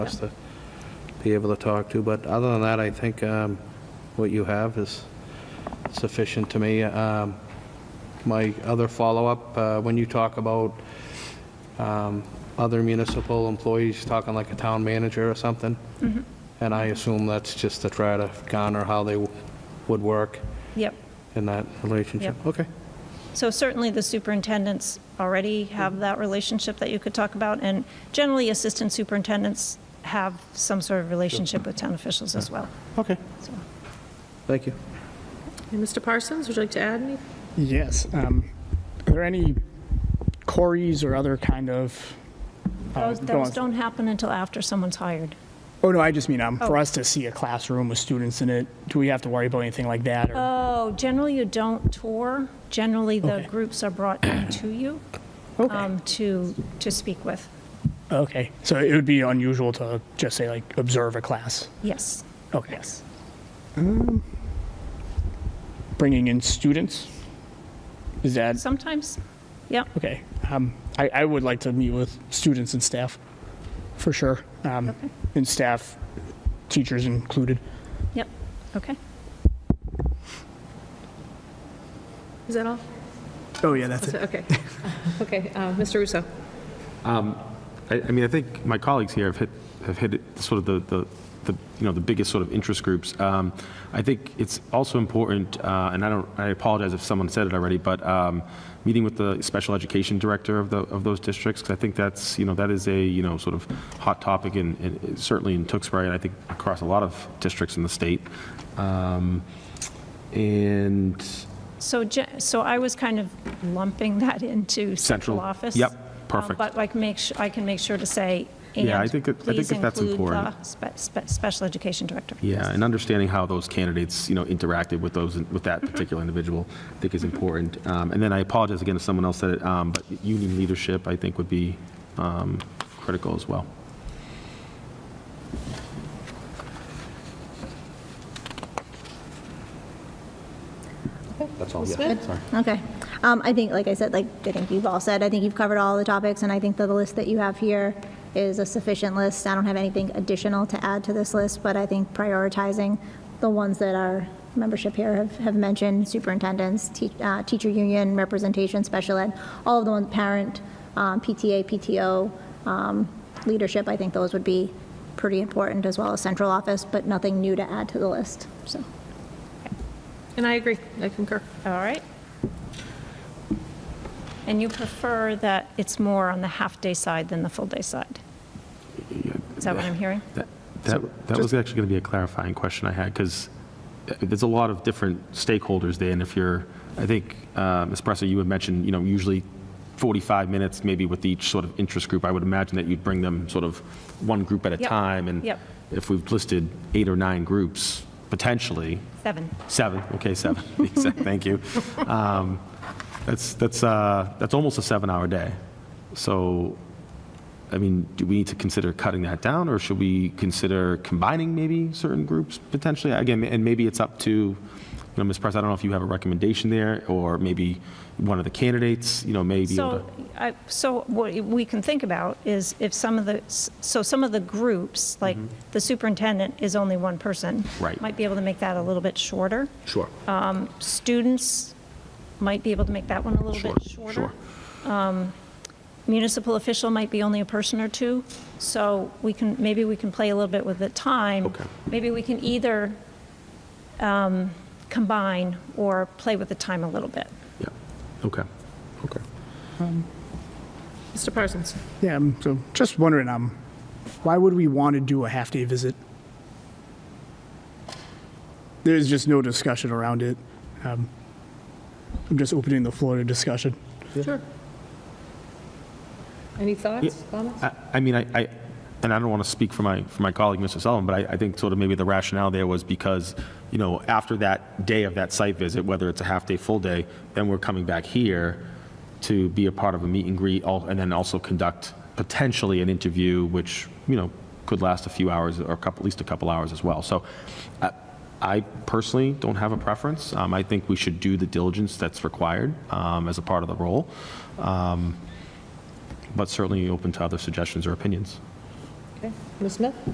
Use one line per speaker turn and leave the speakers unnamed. us to be able to talk to, but other than that, I think um, what you have is sufficient to me. Um, My other follow-up, uh, when you talk about um, other municipal employees, talking like a town manager or something, and I assume that's just to try to garner how they w- would work
Yep.
in that relationship?
Yep.
Okay.
So certainly the superintendents already have that relationship that you could talk about, and generally assistant superintendents have some sort of relationship with town officials as well.
Okay.
So,
Thank you.
And Mr. Parsons, would you like to add any?
Yes. um, Are there any quarries or other kind of? uh,
Those
go
those
on-
don't happen until after someone's hired.
Oh, no, I just mean, um, for
Oh.
us to see a classroom with students in it, do we have to worry about anything like that? or-
Oh, generally you don't tour. Generally, the
Okay.
groups are brought in to you
Okay.
um, to, to speak with.
Okay, so it would be unusual to just say like, observe a class?
Yes,
Okay.
yes.
Bringing in students? Is that,
Sometimes, yeah.
okay. um, I, I would like to meet with students and staff, for sure. um, And staff, teachers included.
Yep, okay.
Is that all?
Oh, yeah, that's
Is that- Okay. Okay, uh, Mr. Russo.
I, I mean, I think my colleagues here have hit, have hit it, sort of the, the, the, you know, the biggest sort of interest groups. Um, I think it's also important, uh, and I don't, I apologize if someone said it already, but um, meeting with the special education director of the, of those districts, 'cause I think that's, you know, that is a, you know, sort of hot topic in, in- certainly in Tewksbury, and I think across a lot of districts in the state. Um, And
So, ge- so I was kind of lumping that into central
Central.
office.
Yep,
Um,
perfect.
But like, make, su- I can make sure to say,
Yeah, I
and
think that- I think
please
that that's
include the
important.
spe- spe- special education director.
Yeah, and understanding how those candidates, you know, interacted with those, with that particular individual, I think is important. Um, And then I apologize again if someone else said it, um, but union leadership, I think, would be um, critical as well. That's all, yeah, sorry.
Okay. Um, I think, like I said, like, I think you've all said, I think you've covered all the topics, and I think that the list that you have here is a sufficient list. I don't have anything additional to add to this list, but I think prioritizing the ones that our membership here have, have mentioned, superintendents, te- uh, teacher union, representation, special ed, all of the ones, parent, um, PTA, PTO, um, leadership, I think those would be pretty important, as well as central office, but nothing new to add to the list, so.
And I agree, I concur.
All right. And you prefer that it's more on the half-day side than the full-day side? Is that what I'm hearing?
That- That, that was actually going to be a clarifying question I had, because there's a lot of different stakeholders there, and if you're, I think, uh, Ms. Presser, you had mentioned, you know, usually 45 minutes maybe with each sort of interest group. I would imagine that you'd bring them sort of one group at a
Yep,
time, and
yep.
if we've listed eight or nine groups, potentially,
Seven.
seven, okay, seven, Exact- thank you. Um, That's, that's, uh, that's almost a seven-hour day. So I mean, do we need to consider cutting that down, or should we consider combining maybe certain groups potentially? Again, and maybe it's up to, you know, Ms. Press, I don't know if you have a recommendation there, or maybe one of the candidates, you know, may be able
So,
to.
I- so what we can think about is if some of the, so some of the groups, like the superintendent is only one person.
Mm-hmm. Right.
Might be able to make that a little bit shorter.
Sure.
Students might be able to make that one a little bit
Sure,
shorter. Um,
sure.
Municipal official might be only a person or two, so we can, maybe we can play a little bit with the time.
Okay.
Maybe we can either um, combine or play with the time a little bit.
Yeah, okay, okay.
Mr. Parsons.
Yeah, um, so just wondering, um, why would we want to do a half-day visit? There's just no discussion around it. Um, I'm just opening the floor to discussion.
Sure. Any thoughts, comments?
I- I mean, I, I- and I don't want to speak for my, for my colleague, Mr. Sullivan, but I, I think sort of maybe the rationale there was because, you know, after that day of that site visit, whether it's a half-day, full-day, then we're coming back here to be a part of a meet and greet, al- and then also conduct potentially an interview, which, you know, could last a few hours or a couple, at least a couple hours as well. So I- I personally don't have a preference. Um, I think we should do the diligence that's required um, as a part of the role, um, but certainly open to other suggestions or opinions.
Ms. Smith?